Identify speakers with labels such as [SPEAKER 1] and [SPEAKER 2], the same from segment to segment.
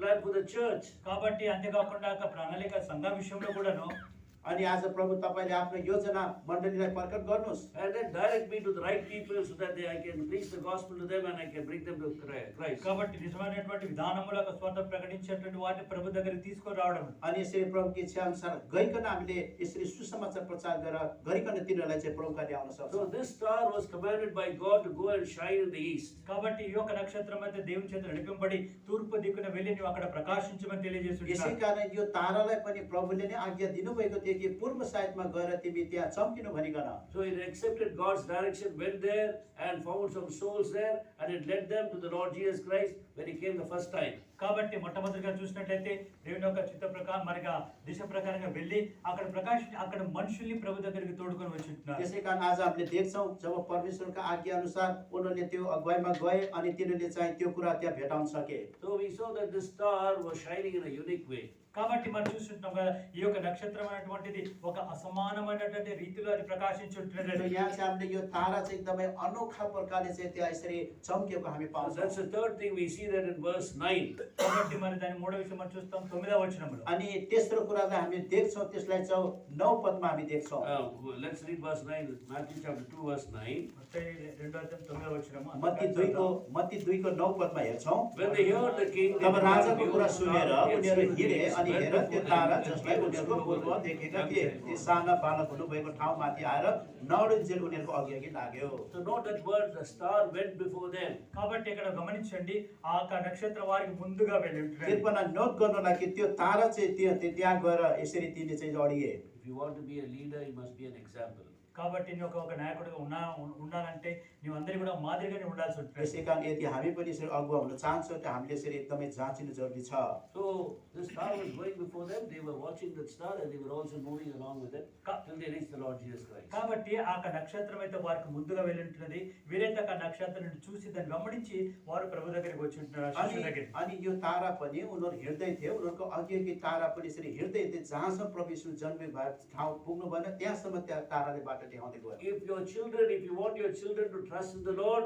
[SPEAKER 1] plan for the church.
[SPEAKER 2] కాబట్టి అంతేకాకుండా ఆ ప్రణాళిక సంఘం విషయంలో కూడాను
[SPEAKER 3] अनि आज प्रभु तपाईँले आफ्नो योजना मण्डलीलाई प्रकट गर्नुहोस्
[SPEAKER 1] And then direct me to the right people so that they, I can preach the gospel to them and I can bring them to Chri- Christ.
[SPEAKER 2] కాబట్టి నిజమైనటువంటి విధానములకు స్వార్థ ప్రకటించేటువంటి వాటిని ప్రభు దగ్గరికి తీసుకొని రావడం
[SPEAKER 3] अनि यसरी प्रभुको इच्छा अनुसार गइकन हामीले यसरी सुसमाचार प्रचार गरेर गरिकन तिनीहरूलाई चाहिँ प्रभु कार्य आउन
[SPEAKER 1] So
[SPEAKER 3] सक्छौँ
[SPEAKER 1] this star was commanded by God to go and shine in the east.
[SPEAKER 2] కాబట్టి ఈ యొక్క నక్షత్రం అయితే దేవుని చేత నడిపింపబడి తూర్పు దిక్కున వెళ్ళి నువ్వు అక్కడ ప్రకాశించమని
[SPEAKER 3] यसै
[SPEAKER 2] తెలియజేస్తున్నాడు
[SPEAKER 3] कारण यो तारालाई पनि प्रभुले नै आज्ञा दिनुभएको थियो कि पूर्व साइडमा गएर तिमी त्यहाँ चम्किनु भनिकन
[SPEAKER 1] So it accepted God's direction, went there and found some souls there, and it led them to the Lord Jesus Christ when He came the first time.
[SPEAKER 2] కాబట్టి మొట్టమొదటిగా చూసినట్లయితే దేవుని యొక్క చిత్త ప్రకారం మరిగా దిశ ప్రకారంగా వెళ్ళి అక్కడ ప్రకాశ అక్కడ మనుషుల్ని ప్రభు దగ్గరికి తోడుకొని వచ్చింటున్నారు
[SPEAKER 3] त्यसै कारण आज हामीले देख्छौँ जब परमेश्वरको आज्ञा अनुसार उनीहरूले त्यो अगुवाईमा गए अनि तिनीहरूले चाहिँ त्यो कुरा त्यहाँ भेटाउन सके
[SPEAKER 1] So we saw that this star was shining in a unique way.
[SPEAKER 2] కాబట్టి మనం చూస్తుంటాం కదా ఈ యొక్క నక్షత్రం అనేటువంటిది ఒక అసమానమైనటువంటి రీతిలో అది
[SPEAKER 3] र
[SPEAKER 2] ప్రకాశించుంటున్నది
[SPEAKER 3] यहाँ चाहिँ हामीले यो तारा चाहिँ एकदमै अनोखा प्रकारले चाहिँ त्यहाँ यसरी चम्किएको हामी
[SPEAKER 1] So that's
[SPEAKER 3] पाउँछौँ
[SPEAKER 1] the third thing we see that in verse 9.
[SPEAKER 2] కాబట్టి మరి దాని మూడో విషయం మనం చూస్తాం తొమ్మిదవ వచనంలో
[SPEAKER 3] अनि तेस्रो कुरालाई हामी देख्छौँ त्यसलाई चाहिँ नौ पदमा हामी देख्छौँ
[SPEAKER 1] Uh, let's read verse 9, Matthew chapter 2, verse 9.
[SPEAKER 2] మత్తయి రెండో అధ్యాయం తొమ్మిదవ వచనము
[SPEAKER 3] मत्ती दुईको मत्ती दुईको नौ पदमा हेर्छौँ
[SPEAKER 1] When they heard the king, they
[SPEAKER 3] तब राजाको कुरा
[SPEAKER 1] rebuked
[SPEAKER 3] सुनेर
[SPEAKER 1] the star,
[SPEAKER 3] उनीहरू
[SPEAKER 1] yes,
[SPEAKER 3] हिँडे
[SPEAKER 1] yes,
[SPEAKER 3] अनि
[SPEAKER 1] went
[SPEAKER 3] हेर त्यो
[SPEAKER 1] before them,
[SPEAKER 3] तारा
[SPEAKER 1] and
[SPEAKER 3] जसलाई
[SPEAKER 1] he was
[SPEAKER 3] उनीहरूको
[SPEAKER 1] full of
[SPEAKER 3] पूर्व
[SPEAKER 1] God.
[SPEAKER 3] देखेका थिए ती साना बालक हुनुभएको ठाउँमाथि आएर नौडिन्जेल उनीहरूको अघि अघि लाग्यो
[SPEAKER 1] So note that word, the star went before them.
[SPEAKER 2] కాబట్టి ఇక్కడ గమనించండి ఆ యొక్క నక్షత్ర వారికి ముందుగా వెళ్ళి ఉంటున్నారు.
[SPEAKER 3] कृपया नोट गर्नुलाई कि त्यो तारा चाहिँ त्यो त्यो त्यहाँ गएर यसरी तिनले चाहिँ अडिए
[SPEAKER 1] If you want to be a leader, you must be an example.
[SPEAKER 2] కాబట్టి నువ్వు ఒక- ఒక నాయకుడిగా ఉన్నా ఉన్- ఉండాలంటే నువ్వు అందరి కూడా మాదిరిగానే ఉండాల్సి ఉంటుంది
[SPEAKER 3] त्यसै कारण यदि हामी पनि यसरी अगुवा हुन चाहन्छौँ त हामीले यसरी एकदमै जाँचिनु जरुरी छ
[SPEAKER 1] So the star was going before them, they were watching that star and they were also moving along with it till they reached the Lord Jesus Christ.
[SPEAKER 2] కాబట్టి ఆ యొక్క నక్షత్రం అయితే వారికి ముందుగా వెళ్ళి ఉంటున్నది వీరైతే ఆ యొక్క నక్షత్రాన్ని చూసి దాన్ని వెంబడించి వారు ప్రభు దగ్గరికి వచ్చి ఉంటున్నారు ఆ శిష్యుల
[SPEAKER 3] अनि
[SPEAKER 2] దగ్గరికి
[SPEAKER 3] अनि यो तारा पनि उनीहरू हिँड्दै थियो उनीहरूको अघि अघि तारा पनि यसरी हिँड्दै हिँड्दै जहाँसम्म प्रवेश जन्मे भए ठाउँ पुग्नु भएन त्यहाँसम्म त्यहाँ ताराले बाटो देखाउँदै गयो
[SPEAKER 1] If your children, if you want your children to trust in the Lord,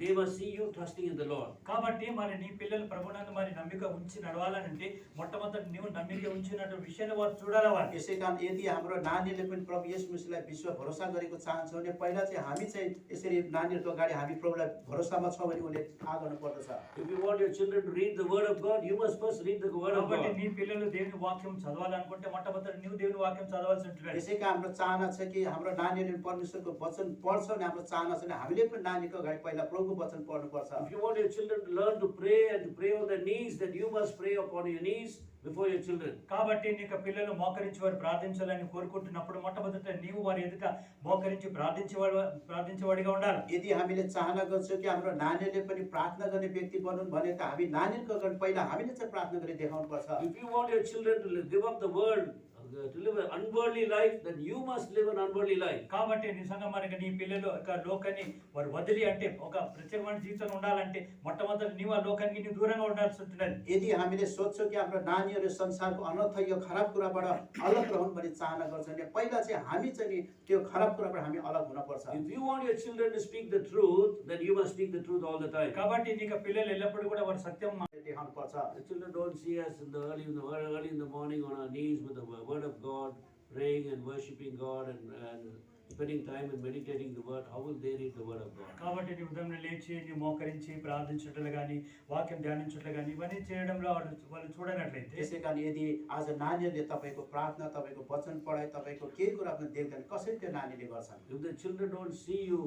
[SPEAKER 1] they must see you trusting in the Lord.
[SPEAKER 2] కాబట్టి మరి నీ పిల్లలు ప్రభునందు మరి నమ్మిక ఉంచి నడవాలనంటే మొట్టమొదటి నువ్వు నమ్మిక ఉంచినటువంటి విషయాన్ని వారు చూడాలి వారు
[SPEAKER 3] यसै कारण यदि हाम्रो नानीले पनि प्रभु यस मुसीलाई विश्व भरोसा गरेको चाहन्छौँ भने पहिला चाहिँ हामी चाहिँ यसरी नानीहरूको अगाडि हामी प्रभुलाई भरोसामा छौँ भने उसले थाहा गर्नुपर्दछ
[SPEAKER 1] If you want your children to read the Word of God, you must first read the Word of
[SPEAKER 2] కాబట్టి
[SPEAKER 1] God.
[SPEAKER 2] నీ పిల్లలు దేవుని వాక్యం చదవాలనుకుంటే మొట్టమొదటి నువ్వు దేవుని వాక్యం చదవాల్సి ఉంటుంది
[SPEAKER 3] यसै कारण हाम्रो चाहना छ कि हाम्रो नानीहरूले परमेश्वरको वचन पढ्छ भने हाम्रो चाहना छ भने हामीले पनि नानीको अगाडि पहिला प्रभुको वचन पढ्नुपर्छ
[SPEAKER 1] If you want your children to learn to pray and to pray on their knees, then you must pray upon your knees before your children.
[SPEAKER 2] కాబట్టి నీకు పిల్లలు మోకరించి వారు ప్రార్థించాలని కోరుకుంటున్నప్పుడు మొట్టమొదట నీవు వారి ఎదుట మోకరించి ప్రార్థించేవాడు ప్రార్థించేవాడిగా ఉండాలి
[SPEAKER 3] यदि हामीले चाहना गर्छौँ कि हाम्रो नानीहरूले पनि प्रार्थना गर्ने व्यक्ति बनुन् भने त हामी नानीहरूको अगाडि पहिला हामीले चाहिँ प्रार्थना गरी देखाउनुपर्छ
[SPEAKER 1] If you want your children to live- give up the world, uh, to live an unworldly life, then you must live an unworldly life.
[SPEAKER 2] కాబట్టి నిజంగా మనకి నీ పిల్లలు ఒక లోకాన్ని వారు వదిలి అంటే ఒక ప్రత్యేకమైన జీవితం ఉండాలంటే మొట్టమొదటి నీవు ఆ లోకానికి నీవు దూరంగా ఉండాల్సి ఉంటున్నది
[SPEAKER 3] यदि हामीले सोध्छौँ कि हाम्रो नानीहरू संसारको अनर्थ यो खराब कुराबाट अलग रहन् भन्ने चाहना गर्छौँ भने पहिला चाहिँ हामी चाहिँ नि त्यो खराब कुराबाट हामी अलग हुनपर्छ
[SPEAKER 1] If you want your children to speak the truth, then you must speak the truth all the time.
[SPEAKER 2] కాబట్టి నీకు పిల్లలు ఎల్లప్పుడూ కూడా వారు సత్యం మా-
[SPEAKER 3] देखाउनुपर्छ
[SPEAKER 1] The children don't see us in the early in the early in the morning on our knees with the wo- word of God, praying and worshiping God and, and spending time and meditating the word. How will they read the word of God?
[SPEAKER 2] కాబట్టి నీ ఉదయం లేచి నీ మోకరించి ప్రార్థించట్లు కానీ వాక్యం ధ్యానించట్లు కానీ ఇవన్నీ చేయడంలో వాళ్ళు వాళ్ళు చూడనట్లయితే
[SPEAKER 3] त्यसै कारण यदि आज नानीहरूले तपाईँको प्रार्थना तपाईँको वचन पढाइ तपाईँको केही कुरा पनि देख्दैन कसरी त्यो नानीले गर्छन्
[SPEAKER 1] If the children don't see you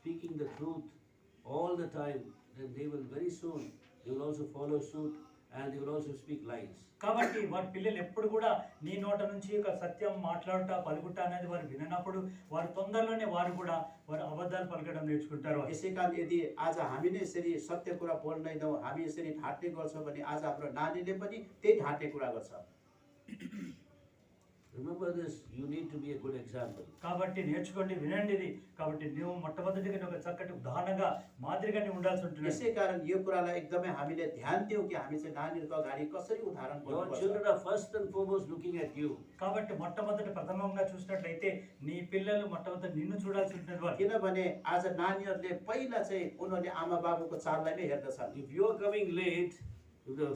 [SPEAKER 1] speaking the truth all the time, then they will very soon they will also follow suit and they will also speak lies.
[SPEAKER 2] కాబట్టి వారి పిల్లలు ఎప్పుడు కూడా నీ నోట నుంచి ఒక సత్యం మాట్లాడుట పలుకుట అనేది వారు విననప్పుడు వారు తొందరలోనే వారు కూడా వారు అబద్ధాలు పలకడం నేర్చుకుంటారు వారు.
[SPEAKER 3] यसै कारण यदि आज हामी नै यसरी सत्य कुरा बोल्दैनौँ हामी यसरी ढाँट्ने गर्छौँ भने आज हाम्रो नानीले पनि त्यही ढाँट्ने कुरा गर्छ
[SPEAKER 1] Mm. Remember this, you need to be a good example.
[SPEAKER 2] కాబట్టి నేర్చుకోండి వినండి ఇది కాబట్టి నువ్వు మొట్టమొదటిగా నువ్వు ఒక చక్కటి ఉదాహరణగా మాదిరిగానే ఉండాల్సి ఉంటుంది
[SPEAKER 3] यसै कारण यो कुरालाई एकदमै हामीले ध्यान दियौँ कि हामी चाहिँ नानीहरूको अगाडि कसरी उदाहरण
[SPEAKER 1] Your
[SPEAKER 3] बोल्नुपर्छ
[SPEAKER 1] children are first and foremost looking at you.
[SPEAKER 2] కాబట్టి మొట్టమొదటి ప్రథమంగా చూసినట్లయితే నీ పిల్లలు మొట్టమొదటి నిన్ను చూడాల్సి ఉంటుంది వారు
[SPEAKER 3] किनभने आज नानीहरूले पहिला चाहिँ उनीहरूले आमा बाबुको चाललाई नै हेर्दछन्
[SPEAKER 1] If you are coming late, if the